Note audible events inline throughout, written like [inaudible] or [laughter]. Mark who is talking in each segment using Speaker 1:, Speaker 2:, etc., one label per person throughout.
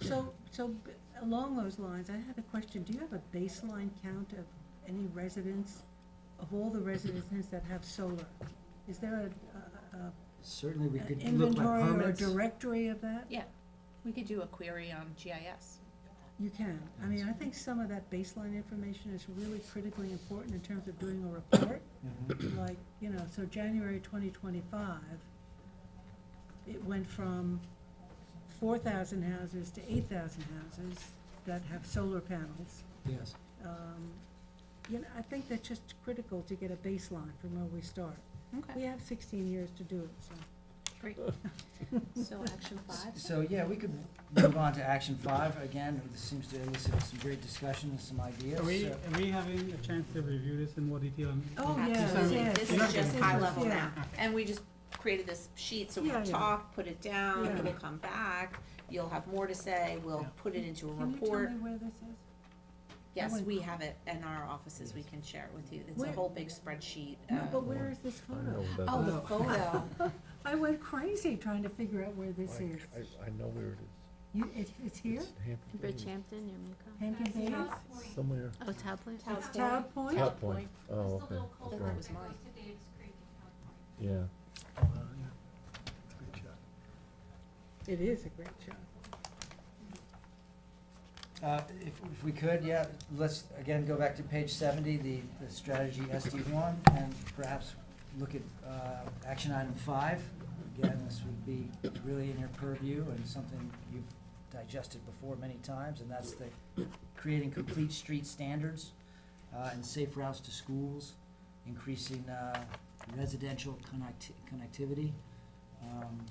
Speaker 1: So, so b- along those lines, I had a question. Do you have a baseline count of any residents, of all the residents that have solar? Is there a, a- a,
Speaker 2: Certainly, we
Speaker 1: an
Speaker 2: could look like
Speaker 1: inventory or a
Speaker 2: permits.
Speaker 1: directory of that?
Speaker 3: Yeah, we could do a query on GIS.
Speaker 1: You can. I mean, I think some of that baseline information is really critically important in terms of doing a report.
Speaker 2: Mhm.
Speaker 1: Like, you know, so January twenty twenty-five, it went from four thousand houses to eight thousand houses that have solar panels.
Speaker 2: Yes,
Speaker 1: um, You know, I think that's just critical to get a baseline from where we start. We have sixteen years to do it, so.
Speaker 3: Great. So action five?
Speaker 2: so, yeah, we could move on to action five, again, this seems to elicit some great discussion and some ideas,
Speaker 4: Are we,
Speaker 2: so-
Speaker 4: are we having a chance to review this in more detail? and-
Speaker 1: Oh,
Speaker 4: and
Speaker 1: yes,
Speaker 4: some-
Speaker 3: Absolutely.
Speaker 1: yes,
Speaker 3: This
Speaker 4: yes,
Speaker 3: is just
Speaker 4: yes,
Speaker 3: high
Speaker 4: yes,
Speaker 3: level
Speaker 1: yeah.
Speaker 3: now, and we just created this sheet, so
Speaker 1: Yeah,
Speaker 3: we'll
Speaker 1: yeah.
Speaker 3: talk, put it down,
Speaker 1: Yeah.
Speaker 3: we'll come back, you'll have more to say, we'll
Speaker 4: Yeah.
Speaker 3: put it into a
Speaker 1: Can you tell
Speaker 3: report.
Speaker 1: me where this is?
Speaker 3: Yes,
Speaker 1: went-
Speaker 3: we have it in our offices, we can share it with you, it's a
Speaker 1: Where-
Speaker 3: whole big spreadsheet.
Speaker 1: No,
Speaker 3: uh,
Speaker 1: but where is this photo?
Speaker 3: Oh, the
Speaker 4: Oh.
Speaker 1: [laughs]
Speaker 3: photo,
Speaker 1: I went crazy trying to figure out where this is.
Speaker 5: I, I know where it is.
Speaker 1: You, it, it's here,
Speaker 5: It's Hampton Bays.
Speaker 6: Bridgehampton, Yumiko.
Speaker 1: Hampton Bays,
Speaker 5: Somewhere.
Speaker 6: Oh, Tablet?
Speaker 3: Tablet.
Speaker 1: Tower Point?
Speaker 5: Top Point. Oh, okay.
Speaker 3: that
Speaker 5: Okay.
Speaker 3: was mine.
Speaker 5: Yeah.
Speaker 4: Uh, yeah.
Speaker 1: It is a great shot.
Speaker 2: Uh, If if we could, yeah, let's again go back to page 70, the the strategy SD1, and perhaps look at uh, action item five. Again, this would be really in your purview and something you've digested before many times, and that's the creating complete street standards uh, and safe routes to schools, increasing uh, residential connect- connectivity. Um,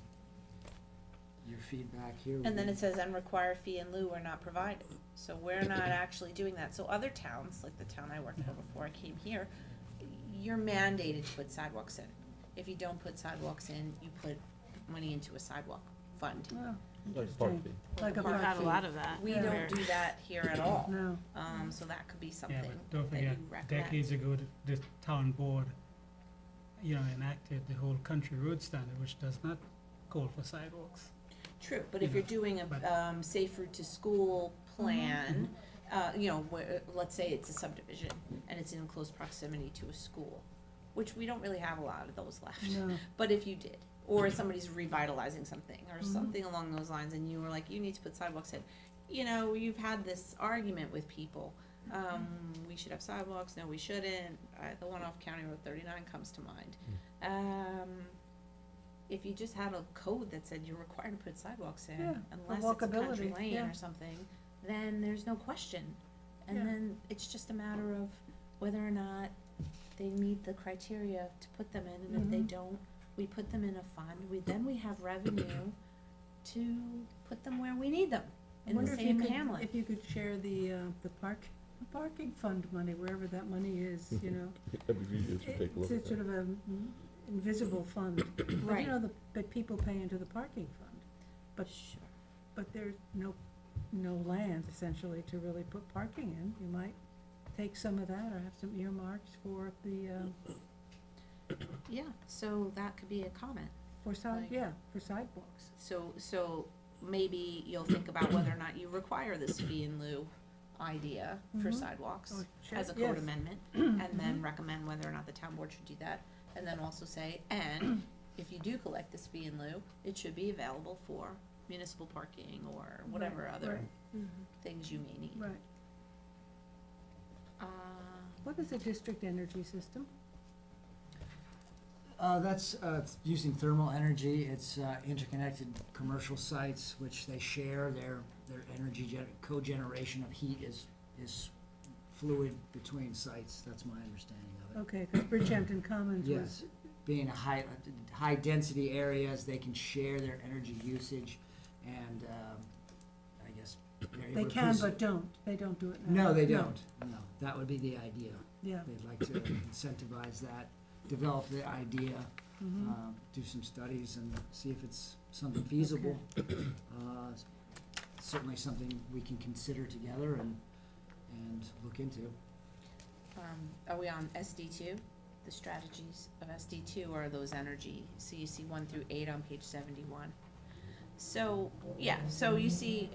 Speaker 2: Your feedback here. would
Speaker 3: and then
Speaker 2: be-
Speaker 4: Mm-hmm.
Speaker 3: it says, and require fee in lieu are not provided, so we're
Speaker 4: [clears throat]
Speaker 3: not actually doing that, so other towns, like the town I worked for before I came here, you're mandated to put sidewalks in, if you don't put sidewalks in, you put money into a sidewalk fund.
Speaker 1: Wow,
Speaker 5: Like Park
Speaker 1: interesting.
Speaker 5: Bay.
Speaker 1: Like a
Speaker 3: We've
Speaker 1: park
Speaker 3: had
Speaker 1: fee.
Speaker 6: of that.
Speaker 3: We
Speaker 1: Yeah.
Speaker 3: don't do that here at all,
Speaker 1: No,
Speaker 3: um, so that could be something
Speaker 4: Yeah,
Speaker 3: that you
Speaker 4: but don't forget,
Speaker 3: recommend.
Speaker 4: decades ago, th- this town board, you know, enacted the whole country road standard, which does not call for sidewalks.
Speaker 3: True, but
Speaker 4: you
Speaker 3: if you're
Speaker 4: know,
Speaker 3: doing
Speaker 4: but-
Speaker 3: a, um, safe route to school plan,
Speaker 4: Mm-hmm.
Speaker 3: uh, you know, where, let's say it's a subdivision and it's in close proximity to a school, which we don't really have a lot of those left.
Speaker 1: [laughs] no,
Speaker 3: But if you did, or somebody's revitalizing something or
Speaker 1: Mm-hmm.
Speaker 3: something along those lines and you were like, you need to put sidewalks in, you know, you've had this argument with people.
Speaker 1: Mm-hmm.
Speaker 3: Um, we should have sidewalks, no, we shouldn't. Uh, the one off County Road thirty-nine comes to mind. Um, if you just had a code that said you're required to put sidewalks in,
Speaker 1: Yeah, for
Speaker 3: unless it's a country
Speaker 1: walkability,
Speaker 3: lane
Speaker 1: yeah.
Speaker 3: or something, then there's no question. And
Speaker 1: Yeah.
Speaker 3: then it's just a matter of whether or not they meet the criteria to put them in, and if they
Speaker 1: Mhm.
Speaker 3: don't, we put them in a fund, we, then we have revenue to put them where we need them,
Speaker 1: I
Speaker 3: in the
Speaker 1: wonder if you
Speaker 3: same
Speaker 1: could,
Speaker 3: hamlet.
Speaker 1: if you could share the, uh, the park, the parking fund money, wherever that money is,
Speaker 3: [laughs]
Speaker 1: you know?
Speaker 5: That'd be easier to take a look at
Speaker 1: It's sort
Speaker 5: that.
Speaker 1: of a mm, invisible
Speaker 5: [coughs]
Speaker 1: fund, but you
Speaker 3: Right.
Speaker 1: know, the, but people pay into the parking fund. But, but there's no, no land essentially to really put parking in, you might take some of that or have some earmarks for the, um,
Speaker 3: Yeah, so that could be a comment.
Speaker 1: for side,
Speaker 3: Like-
Speaker 1: yeah, for sidewalks.
Speaker 3: So, so maybe you'll think about whether or not you require this fee in lieu idea for
Speaker 1: Mhm.
Speaker 3: sidewalks
Speaker 1: Or
Speaker 3: as a
Speaker 1: shed- yes. [clears throat]
Speaker 3: code
Speaker 1: Mm-hmm.
Speaker 3: amendment, and then recommend whether or not the town board should do that. And then
Speaker 1: [clears throat]
Speaker 3: also say, and if you do collect this fee in lieu, it should be available for municipal parking or whatever
Speaker 1: Right,
Speaker 3: other things you may need.
Speaker 1: Right, right.
Speaker 3: Uh,
Speaker 1: What is a district energy system?
Speaker 2: Uh, that's, uh, it's using thermal energy, it's, uh, interconnected commercial sites which they share, their, their energy gen- cogeneration of heat is, is fluid between sites, that's my understanding of it.
Speaker 1: Okay, because Bridgehampton Commons was,
Speaker 2: Yes, being a high, high density areas, they can share their energy usage and, um, I guess. they're
Speaker 1: they
Speaker 2: able to
Speaker 1: can
Speaker 2: produce-
Speaker 1: but don't, they don't do it now.
Speaker 2: No, they don't, no, that would be the idea,
Speaker 1: Yeah,
Speaker 2: they'd like to incentivize that, develop the idea
Speaker 1: mhm.
Speaker 2: um, do some studies and see if it's something feasible. Uh, s- Certainly something we can consider together and, and look into.
Speaker 3: um, are we on SD two? The strategies of SD two are those energy, so you see one through eight on page seventy-one. So, yeah, so you see,